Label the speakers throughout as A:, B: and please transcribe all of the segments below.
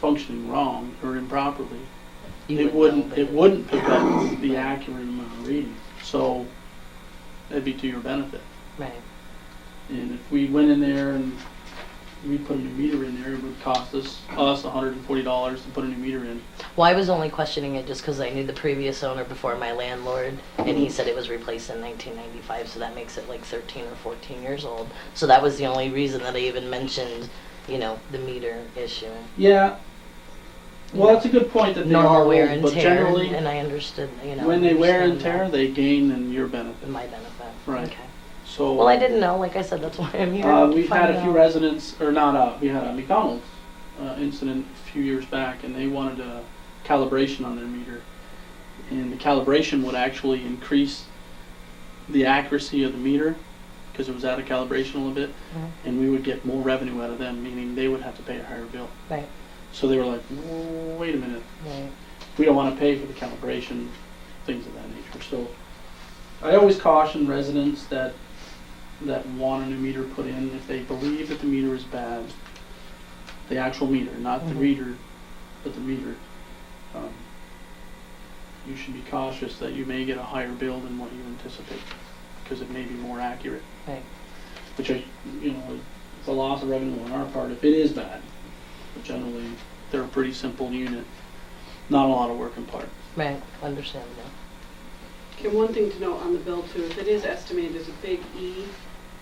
A: functioning wrong or improperly,
B: You
A: it
B: wouldn't
A: wouldn't,
B: know, but
A: it wouldn't pick up the accurate amount of reading. So that'd be to your benefit.
B: Right,
A: And if we went in there and we put a new meter in there, it would cost us, us hundred and forty dollars to put a new meter in.
B: well, I was only questioning it just because I knew the previous owner before my landlord, and he said it was replaced in nineteen ninety-five, so that makes it like thirteen or fourteen years old. So that was the only reason that I even mentioned, you know, the meter issue.
A: Yeah. Well, that's a good point that they are
B: Normal wear
A: old,
B: and
A: but
B: tear,
A: generally,
B: and I understood, you know.
A: when they wear and tear,
B: understand
A: they gain in your
B: that.
A: benefit.
B: My benefit.
A: Right.
B: Okay.
A: So.
B: Well, I didn't know, like I said, that's why I'm here.
A: Uh,
B: to
A: we've had
B: find
A: a few
B: out.
A: residents, or not, uh, we had a McDonald's, uh, incident a few years back, and they wanted a calibration on their meter. And the calibration would actually increase the accuracy of the meter, because it was out of calibration a little bit,
B: Mhm.
A: and we would get more revenue out of them, meaning they would have to pay a higher bill.
B: Right,
A: So they were like, wait a minute,
B: right.
A: we don't want to pay for the calibration, things of that nature. So I always caution residents that, that want a new meter put in, if they believe that the meter is bad, the actual meter, not the
B: Mhm.
A: reader, but the meter, um, you should be cautious that you may get a higher bill than what you anticipate, because it may be more accurate.
B: Right.
A: Which I, you know, it's a loss of revenue on our part if it is bad. But generally, they're a pretty simple unit, not a lot of work in part.
B: Right, understandable.
C: And one thing to note on the bill too, is it is estimated as a big E.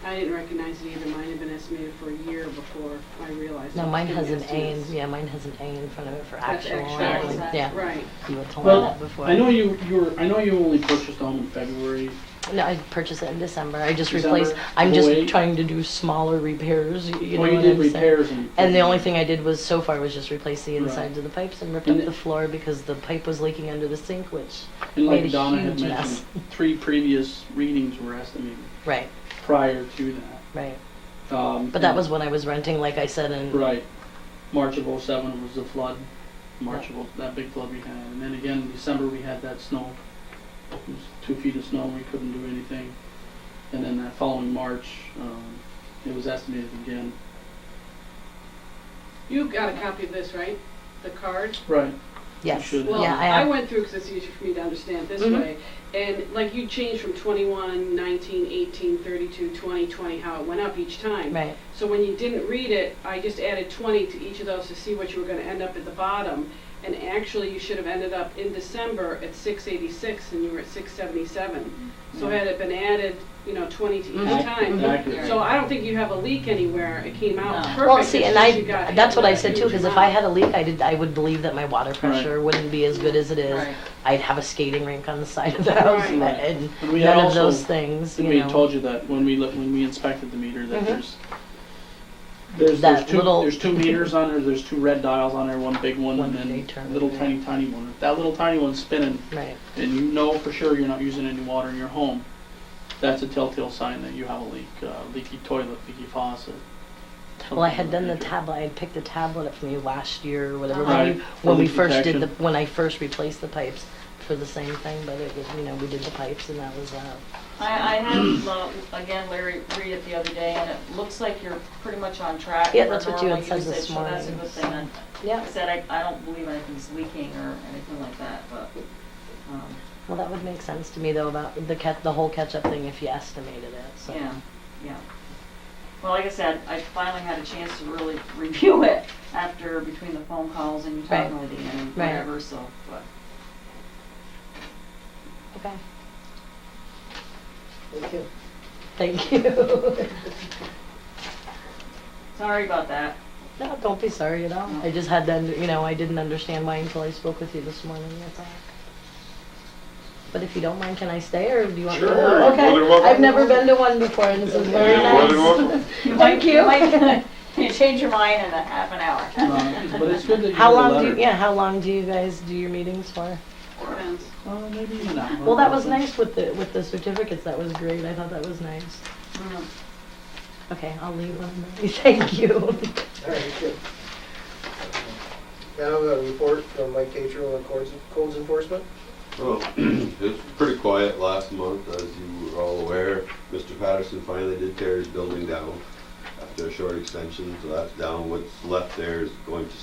C: I didn't recognize it either, mine had been estimated for a year before I realized.
B: No,
C: it was
B: mine
C: in
B: has
C: the
B: an A, in
C: estimates.
B: yeah, mine has an A in front of it for
C: That's
B: actual.
C: actual,
B: and I was
C: that's
B: like, Yeah,
C: Right,
B: you had told me
A: Well,
B: that before.
A: I know you, you were, I know you only purchased the home in February.
B: No, I purchased it in December, I just
A: December,
B: replaced, I'm just
A: 08.
B: trying to do smaller repairs, y- you know
A: Well, you
B: what
A: did
B: I'm saying?
A: repairs and.
B: And the only thing I did was, so far, was just replace the
A: Right.
B: insides of the pipes and ripped
A: And
B: up
A: it-
B: the floor because the pipe was leaking under the sink, which,
A: And
B: made
A: like
B: a
A: Donna had
B: huge
A: mentioned, three previous readings were estimated
B: right,
A: prior to that.
B: right.
A: Um,
B: But that was when I was renting, like I said, and,
A: Right. March of '07 was the flood, March of, 0- that big flood we had. And then again, in December, we had that snow. It was two feet of snow, we couldn't do anything. And then that following March, um, it was estimated again.
C: you got a copy of this, right? The card?
A: Right.
B: yes,
A: should-
B: yeah,
C: Well,
B: I
C: I
B: have,
C: went through, because it's easier for me to understand this
B: Mhm.
C: way, and like you changed from 21, 19, 18, 32, 20, 20, how it went up each time.
B: right,
C: So when you didn't read it, I just added 20 to each of those to see what you were going to end up at the bottom. And actually, you should have ended up in December at 686 and you were at 677. So
A: Mm-hmm.
C: had it been added, you know, 20 to
B: Mhm.
C: each time.
A: Accurate.
C: So I don't think you have a leak anywhere. It came out perfect.
B: Well, see,
C: It's
B: and
C: just
B: I,
C: you got
B: that's what I
C: hit
B: said too,
C: with a
B: because if
C: huge
B: I
C: amount.
B: had a leak, I did, I would believe that my water pressure wouldn't be as good as it is.
D: Right.
B: I'd have a skating rink on the side of the house
C: Right.
B: and- and
A: And we had
B: none of
A: also-
B: those things,
A: And
B: you
A: we
B: know.
A: had told you that when we looked, when we inspected the meter, that
B: Mhm.
A: there's, there's,
B: That
A: there's two,
B: little-
A: there's two meters on there, there's two red dials on there, one big one
B: One
A: and then
B: big turn,
A: little
B: yeah.
A: tiny, tiny one. If That little tiny one's spinning,
B: Right,
A: and you know for sure you're not using any water in your home, that's a telltale sign that you have a leak, uh, leaky toilet, leaky faucet.
B: well, I
A: something
B: had
A: of
B: done the
A: that nature.
B: tablet, I had picked the tablet up from you last year or whatever,
A: Right,
B: when we,
A: for
B: when we
A: leak
B: first did the,
A: detection.
B: when I first replaced the pipes for the same thing, but it was, you know, we did the pipes and that was, uh,
D: I, I had, uh, again, Larry read it the other day, and it looks like you're pretty much on track.
B: Yeah,
D: for
B: that's what you had
D: normal
B: said this
D: usage, so That's a
B: morning.
D: good thing. And Like
B: yeah,
D: I said, I, I don't believe anything's leaking or anything like that, but, um,
B: well, that would make sense to me though about the cat, the whole catch-up thing if you estimated it, so.
D: yeah, yeah. Well, like I said, I finally had a chance to really review it after, between the phone calls and you talking
B: Right.
D: with Ian and
B: Right.
D: whatever, so, but.
B: Okay. Thank you. Thank you.
D: Sorry about that.
B: No, don't be sorry at all. I just had to, you know, I didn't understand why until I spoke with you this morning, that's all. But if you don't mind, can I stay or do you want me to?
E: Sure, you're
B: Okay.
E: more than welcome.
B: I've never been to one before and this is very
E: You're more than
B: nice.
E: welcome.
D: You
B: Thank
D: might-
B: you.
D: might- You change your mind in a half an hour.
A: Uh, But it's good that you
B: How
A: have a
B: long do, you
A: letter.
B: yeah, how long do you guys do your meetings for?
E: Mm-hmm.
C: Depends.
A: Uh, maybe even that one.
B: Well, that was nice with the, with the certificates, that was great, I thought that was nice.
D: Mm.
A: Mm-hmm.
B: Okay, I'll leave one, thank you.
F: All right, good. Now, a report from Mike Tatro on codes codes enforcement.
E: Well, it was pretty quiet last month, as you were all aware. Mr. Patterson finally did tear his building down after a short extension, so that's down. What's left there is going to